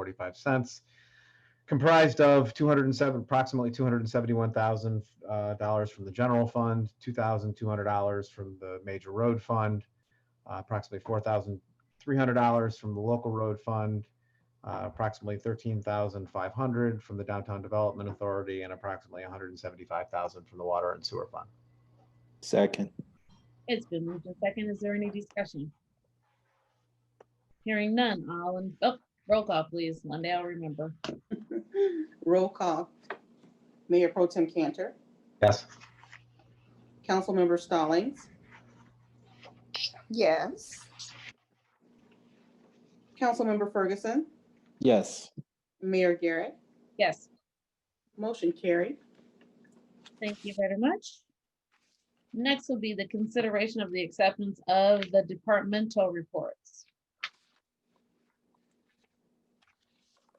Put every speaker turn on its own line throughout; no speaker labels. forty-five cents, comprised of two hundred and seven, approximately two hundred and seventy-one thousand uh, dollars from the general fund, two thousand two hundred dollars from the major road fund, uh, approximately four thousand three hundred dollars from the local road fund, uh, approximately thirteen thousand five hundred from the downtown development authority, and approximately one hundred and seventy-five thousand from the water and sewer fund.
Second.
It's been moved in second. Is there any discussion? Hearing none, all in, oh, roll call, please. One day I'll remember.
Roll call. Mayor Pro Tem Cantor,
Yes.
Councilmember Stallings,
Yes.
Councilmember Ferguson,
Yes.
Mayor Garrett.
Yes,
Motion carried.
thank you very much. Next will be the consideration of the acceptance of the departmental reports.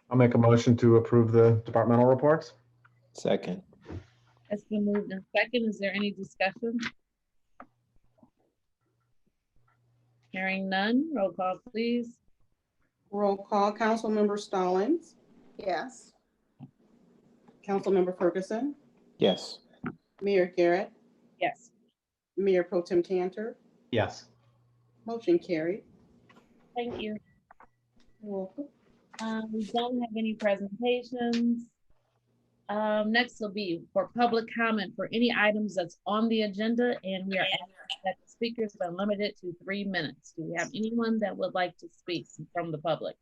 I'll make a motion to approve the departmental reports.
Second.
It's been moved in second. Is there any discussion? Hearing none, roll call, please.
Roll call. Councilmember Stallings,
Yes.
Councilmember Ferguson,
Yes.
Mayor Garrett,
Yes,
Mayor Pro Tem Cantor.
Yes.
Motion carried.
thank you.
You're welcome.
Um, we don't have any presentations. Um, next will be for public comment for any items that's on the agenda, and we are asking that the speakers are limited to three minutes. Do we have anyone that would like to speak from the public?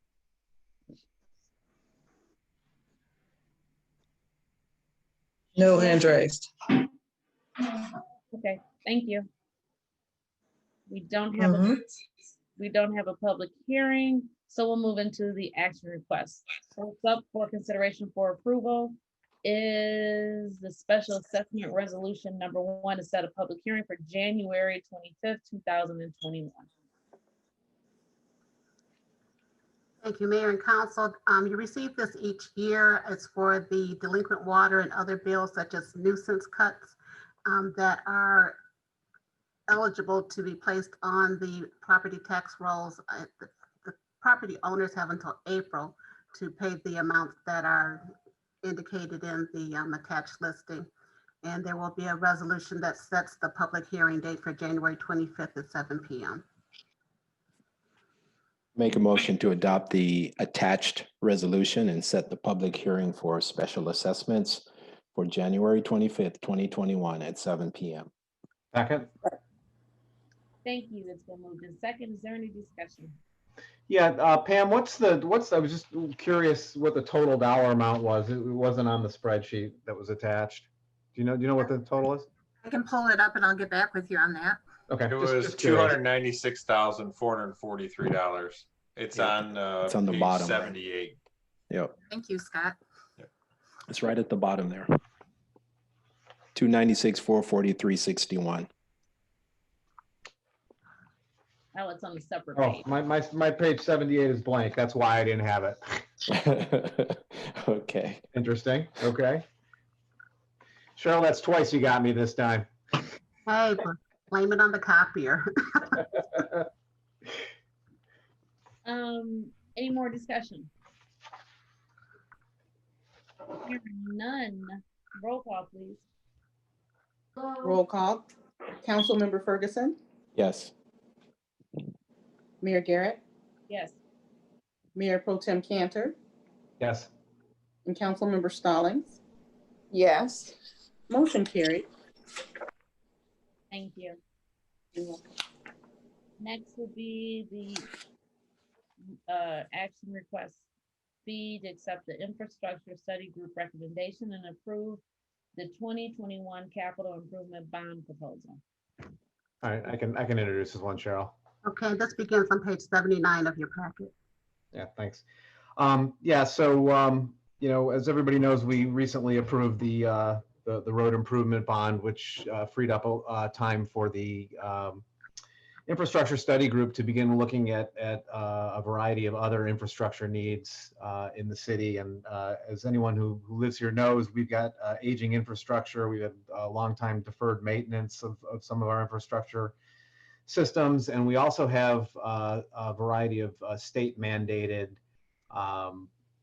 No hand raised.
Okay, thank you. We don't have, a
Mhm.
we don't have a public hearing, so we'll move into the action request. So What's up for consideration for approval is the special assessment resolution number one to set a public hearing for January twenty-fifth, two thousand and twenty-one.
Thank you, Mayor and Council. Um, you receive this each year. It's for the delinquent water and other bills such as nuisance cuts um, that are eligible to be placed on the property tax rolls. Uh, The the property owners have until April to pay the amounts that are indicated in the um, attached listing. And there will be a resolution that sets the public hearing date for January 25th at 7 PM.
Make a motion to adopt the attached resolution and set the public hearing for special assessments for January twenty-fifth, twenty twenty-one at seven PM.
Second?
Thank you, it's been moved in second. Is there any discussion?
Yeah, uh, Pam, what's the, what's, I was just curious what the total dollar amount was. It wasn't on the spreadsheet that was attached. Do you know, do you know what the total is?
I can pull it up and I'll get back with you on that.
Okay.
It
just-
was
just
two
curious.
hundred ninety-six thousand, four hundred and forty-three dollars. It's
Yeah.
on, uh,
It's on the
page
bottom.
Seventy-eight.
Yep,
Thank you, Scott.
it's right at the bottom there. Two ninety-six, four forty-three, sixty-one.
Oh, it's on the separate
Oh,
page.
my, my, my page seventy-eight is blank. That's why I didn't have it.
Okay,
Interesting. Okay. Cheryl, that's twice you got me this time.
Hey, bl- blame it on the copier.
Um, any more discussion? Hearing None. Roll call, please.
Roll call. Councilmember Ferguson,
yes.
Mayor Garrett,
Yes,
Mayor Pro Tem Cantor,
Yes.
and Councilmember Stallings.
Yes.
Motion carried.
thank you. Next will be the uh, action request fee to accept the infrastructure study group recommendation and approve the twenty twenty-one capital improvement bond proposal.
All right, I can, I can introduce this one, Cheryl.
Okay, this begins on page 79 of your packet.
Yeah, thanks. Um, yeah, so, um, you know, as everybody knows, we recently approved the, uh, the, the road improvement bond, which, uh, freed up, uh, time for the, um, infrastructure study group to begin looking at, at, uh, a variety of other infrastructure needs, uh, in the city. And, uh, as anyone who who lives here knows, we've got, uh, aging infrastructure. We have a long time deferred maintenance of, of some of our infrastructure systems, and we also have uh, a variety of uh, state mandated um,